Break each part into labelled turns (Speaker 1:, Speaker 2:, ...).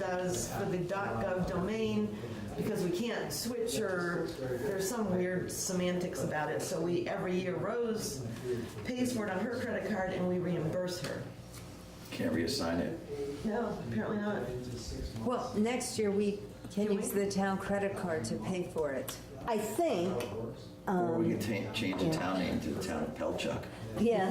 Speaker 1: as for the .gov domain, because we can't switch or, there's some weird semantics about it, so we, every year Rose pays for it on her credit card and we reimburse her.
Speaker 2: Can't reassign it.
Speaker 1: No, apparently not.
Speaker 3: Well, next year we can
Speaker 1: Can
Speaker 3: use
Speaker 1: we?
Speaker 3: the town credit card to pay for it. I think,
Speaker 2: Or we can ta- change
Speaker 1: Um,
Speaker 2: the town name to the town of Pelchuck.
Speaker 3: yeah,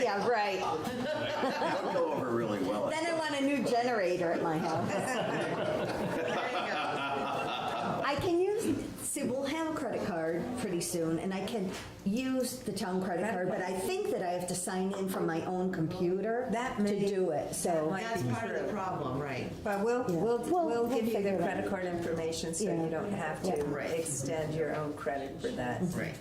Speaker 3: yeah, right.
Speaker 2: That would go over really well. I
Speaker 3: Then I
Speaker 2: think.
Speaker 3: want a new generator at my house.
Speaker 1: There you go.
Speaker 3: I can use, see, we'll have a credit card pretty soon, and I can use the town credit card, but I think that I have to sign in from my own computer
Speaker 4: That
Speaker 3: to
Speaker 4: may-
Speaker 3: do it, so.
Speaker 1: That's part of the problem, right?
Speaker 4: But we'll, we'll,
Speaker 3: We'll-
Speaker 4: we'll
Speaker 3: we'll
Speaker 4: give you
Speaker 3: figure
Speaker 4: the
Speaker 3: it out.
Speaker 4: credit card information so
Speaker 3: Yeah.
Speaker 4: you don't have
Speaker 1: Right.
Speaker 4: to extend your own credit for that.
Speaker 1: Right.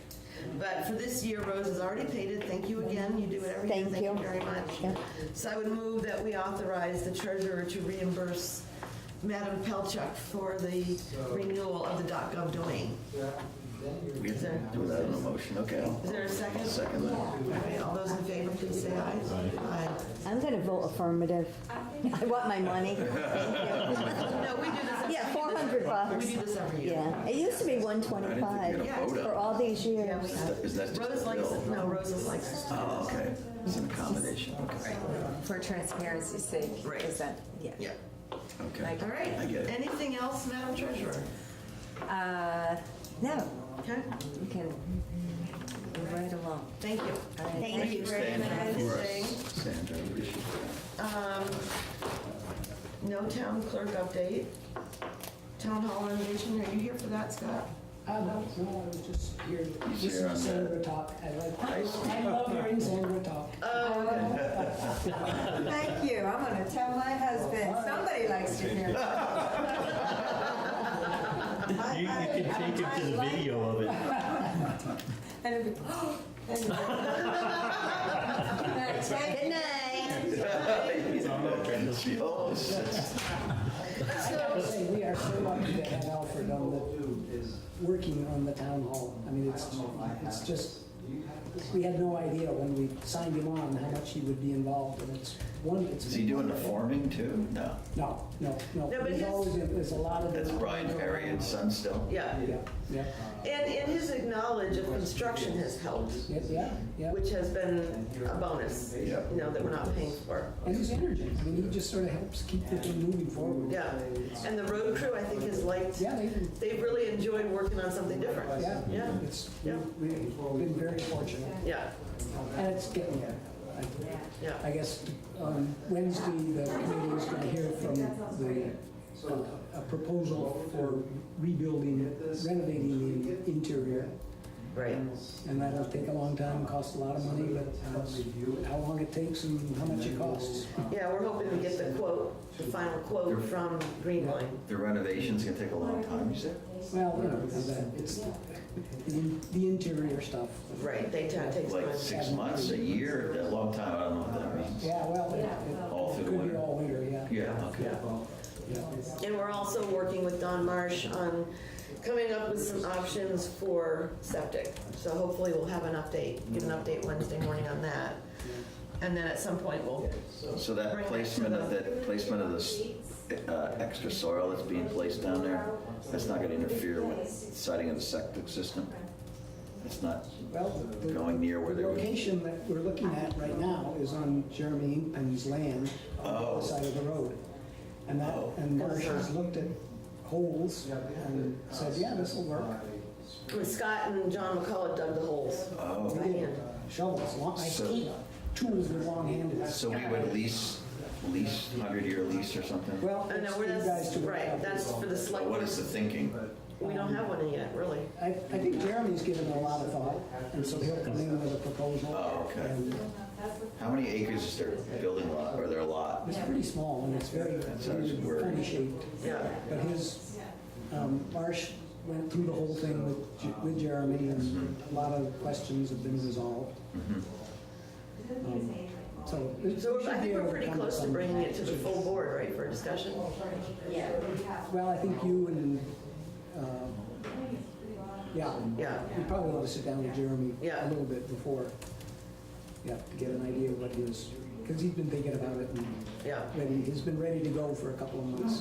Speaker 1: But for this year, Rose has already paid it. Thank you again. You do it every year.
Speaker 3: Thank
Speaker 1: Thank you
Speaker 3: you.
Speaker 1: very
Speaker 3: Yeah.
Speaker 1: much. So I would move that we authorize the treasurer to reimburse Madam Pelchuk for the renewal of the .gov domain.
Speaker 2: We have to do that in a motion, okay. I'll-
Speaker 1: Is there a second?
Speaker 2: I'll Second that.
Speaker 1: All right, all those in favor, please say aye. Aye.
Speaker 3: I'm gonna vote affirmative. I want my money.
Speaker 1: No, we do this every.
Speaker 3: Yeah, 400 bucks.
Speaker 1: We do this every year.
Speaker 3: Yeah, it used to be one
Speaker 2: I didn't think we had a
Speaker 3: twenty-five
Speaker 2: vote
Speaker 3: for
Speaker 2: up.
Speaker 3: all these
Speaker 1: Yeah,
Speaker 3: years.
Speaker 1: we have.
Speaker 2: Is that just
Speaker 1: Rose
Speaker 2: a
Speaker 1: likes,
Speaker 2: bill?
Speaker 1: no, Rose is like,
Speaker 2: Oh, okay. It's an accommodation, okay.
Speaker 4: For transparency's sake,
Speaker 1: Right.
Speaker 4: is that, yeah.
Speaker 1: yeah.
Speaker 2: Okay.
Speaker 1: All right.
Speaker 2: I get it.
Speaker 1: Anything else, Madam Treasurer?
Speaker 4: Uh, no,
Speaker 1: Okay,
Speaker 4: you can go right along.
Speaker 1: thank you.
Speaker 4: Thank
Speaker 1: you
Speaker 2: Stand
Speaker 1: Thank
Speaker 2: for us.
Speaker 1: you.
Speaker 2: Stand, I appreciate that.
Speaker 1: No town clerk update. Town hall renovation, are you here for that, Scott?
Speaker 5: Uh, no, no, I was just here.
Speaker 2: He's
Speaker 5: This
Speaker 2: here on
Speaker 5: is Sandra talk. I like, I love hearing Sandra talk.
Speaker 1: Uh,
Speaker 4: Thank you, I'm gonna tell my husband, somebody likes to hear.
Speaker 6: You, you can take it to the video of it.
Speaker 4: And it'd be, and it'd be-
Speaker 3: Good night.
Speaker 2: She almost sits.
Speaker 5: I would say we are so lucky to have Alfred on the, working on the town hall. I mean, it's, it's just, we had no idea when we signed him on how much he would be involved and it's one, it's.
Speaker 2: Is he doing the forming too? No.
Speaker 5: No, no,
Speaker 1: No,
Speaker 5: no.
Speaker 1: but
Speaker 5: There's
Speaker 1: his-
Speaker 5: always, there's a lot of.
Speaker 2: That's Brian Ferry and Son still?
Speaker 1: Yeah,
Speaker 5: Yeah, yeah,
Speaker 1: and, and his knowledge of construction has helped,
Speaker 5: yeah, yeah, yeah.
Speaker 1: which has been a bonus, you
Speaker 2: Yep.
Speaker 1: know, that we're not paying for.
Speaker 5: And his energy, I mean, he just sort of helps keep the thing moving forward.
Speaker 1: Yeah, and the road crew, I think, has liked,
Speaker 5: Yeah, they,
Speaker 1: they've really enjoyed working on something different.
Speaker 5: Yeah,
Speaker 1: Yeah.
Speaker 5: it's,
Speaker 1: Yeah.
Speaker 5: we've been very fortunate,
Speaker 1: Yeah,
Speaker 5: and it's getting there. I- I
Speaker 1: yeah,
Speaker 5: guess on Wednesday, the committee is going to hear from the, uh, a proposal for rebuilding, renovating the interior.
Speaker 1: right.
Speaker 5: And that'll take a long time, cost a lot of money, but that's how long it takes and how much it costs.
Speaker 1: Yeah, we're hoping to get the quote, the final quote from Greenline.
Speaker 2: The renovation's gonna take a long time, you said?
Speaker 5: Well, you know, that- it's, the in- the interior stuff.
Speaker 1: Right, they ta- takes
Speaker 2: Like
Speaker 1: time.
Speaker 2: six months, a year, a long time, I don't know what that means.
Speaker 5: Yeah, well, it- it
Speaker 2: All through the
Speaker 5: could be
Speaker 2: winter.
Speaker 5: all winter, yeah.
Speaker 2: Yeah, okay.
Speaker 1: And we're also working with Don Marsh on coming up with some options for septic. So hopefully we'll have an update, give an update Wednesday morning on that. And then at some point we'll,
Speaker 2: So
Speaker 1: Bring
Speaker 2: that
Speaker 1: it
Speaker 2: placement
Speaker 1: to
Speaker 2: of,
Speaker 1: the-
Speaker 2: that placement of this uh, extra soil that's being placed down there, that's not gonna interfere with siding of the septic system? It's not
Speaker 5: Well, the-
Speaker 2: going near where
Speaker 5: the
Speaker 2: they would...
Speaker 5: location that we're looking at right now is on Jeremy Inkpen's land on
Speaker 2: Oh.
Speaker 5: the side of the road. And that, and Marsh has looked at holes and said, yeah, this will work.
Speaker 1: Scott and John McCullough dug the holes.
Speaker 2: Oh.
Speaker 1: By hand.
Speaker 5: Shovels, long, I
Speaker 2: So-
Speaker 5: hate tools with long handles.
Speaker 2: So we would lease, lease, 100-year lease or something?
Speaker 5: Well,
Speaker 1: I
Speaker 5: it's
Speaker 1: know,
Speaker 5: for
Speaker 1: we're,
Speaker 5: you guys
Speaker 1: that's,
Speaker 5: to work
Speaker 1: right,
Speaker 5: out.
Speaker 1: that's for the
Speaker 2: But
Speaker 1: select,
Speaker 2: what is the thinking?
Speaker 1: we don't have one in yet, really.
Speaker 5: I, I think Jeremy's given it a lot of thought, and so he'll come in with a proposal.
Speaker 2: Oh, okay.
Speaker 5: And
Speaker 2: How many acres is their building lot, or their lot?
Speaker 5: It's pretty small, and it's very,
Speaker 2: sounds weird.
Speaker 5: funny shaped.
Speaker 1: Yeah,
Speaker 5: But his, um, Marsh went through the whole thing with, J- with Jeremy, and a lot of questions have been resolved.
Speaker 2: Mm-hmm.
Speaker 5: Um, So. it
Speaker 1: so
Speaker 5: should
Speaker 1: I
Speaker 5: be
Speaker 1: think
Speaker 5: able
Speaker 1: we're
Speaker 5: to
Speaker 1: pretty
Speaker 5: come to
Speaker 1: close to
Speaker 5: some-
Speaker 1: bringing it to the full board, right, for a discussion?
Speaker 5: Well, I think you and, um, yeah.
Speaker 1: Yeah.
Speaker 5: You probably want to sit down with Jeremy
Speaker 1: Yeah.
Speaker 5: a little bit before, yeah, to get an idea of what his because he's been thinking about it and
Speaker 1: Yeah.
Speaker 5: ready, he's been ready to go for a couple of months.